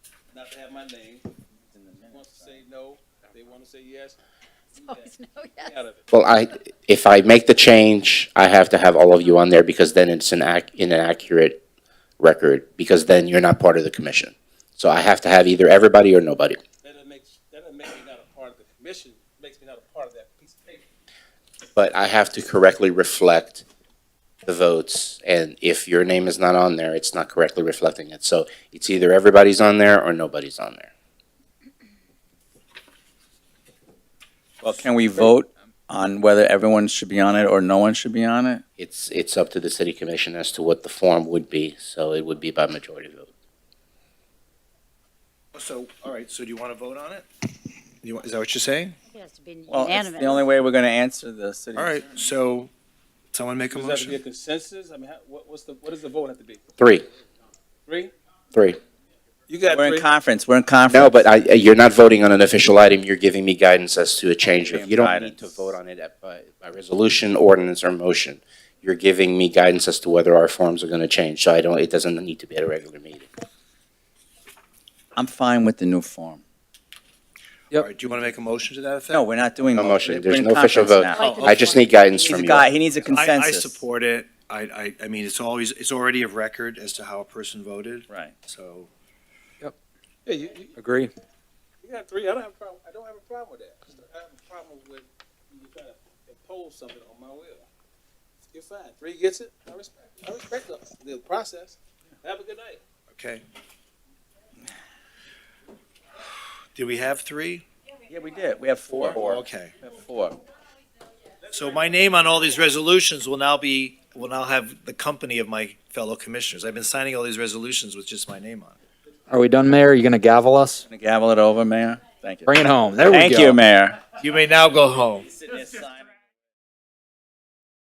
not to have my name. It's in the Wants to minutes, say no, they want to say yes, It's always no, get yes. out of it. Well, I, if I make the change, I have to have all of you on there because then it's an ac, an accurate record, because then you're not part of the commission. So I have to have either everybody or nobody. That doesn't make, that doesn't make me not a part of the commission, makes me not a part of that piece of paper. But I have to correctly reflect the votes, and if your name is not on there, it's not correctly reflecting it. So it's either everybody's on there or nobody's on there. Well, can we vote on whether everyone should be on it or no one should be on it? It's, it's up to the city commission as to what the form would be, so it would be by majority vote. So, all right, so do you want to vote on it? You want, is that what you're saying? It has to be Well, it's unanimous. the only way we're gonna answer the city. All right, so, someone make a Does that have to be a motion? consensus? I mean, how, what, what's the, what does the vote have to be? Three, Three? three. You got We're three. in conference, we're in conference. No, but I, you're not voting on an official item, you're giving me guidance as to a change of, you don't need to Guidance. vote on it at- by, by resolution, ordinance, or motion. You're giving me guidance as to whether our forms are gonna change, so I don't, it doesn't need to be at a regular meeting. I'm fine with the new form. All right, do you want to make a motion to that effect? No, we're not doing. No motion. motion. We're There's in no official conference vote. now. Oh, I just need guidance He's a from guy, you. he needs a I, I consensus. support it. I, I, I mean, it's always, it's already of record as to how a person voted, Right. so. Yeah, you, you, Agree. you got three. I don't have a problem, I don't have a problem with that. I have a problem with you trying to impose something on my will. You're fine. Three gets it. I respect, I respect the, the process. Have a good night. Okay. Did we have three? Yeah, we did, we have four. Oh, Okay. We have Four. So my name on all these resolutions will now be, will now have the company of my fellow commissioners. I've been signing all these resolutions with just my name on it. Are we done, Mayor? Are you going to gavel us? Gonna gavel it over, Mayor? Thank you. Bring it home. There we go. Thank you, Mayor. You may now go home. Sitting there signing.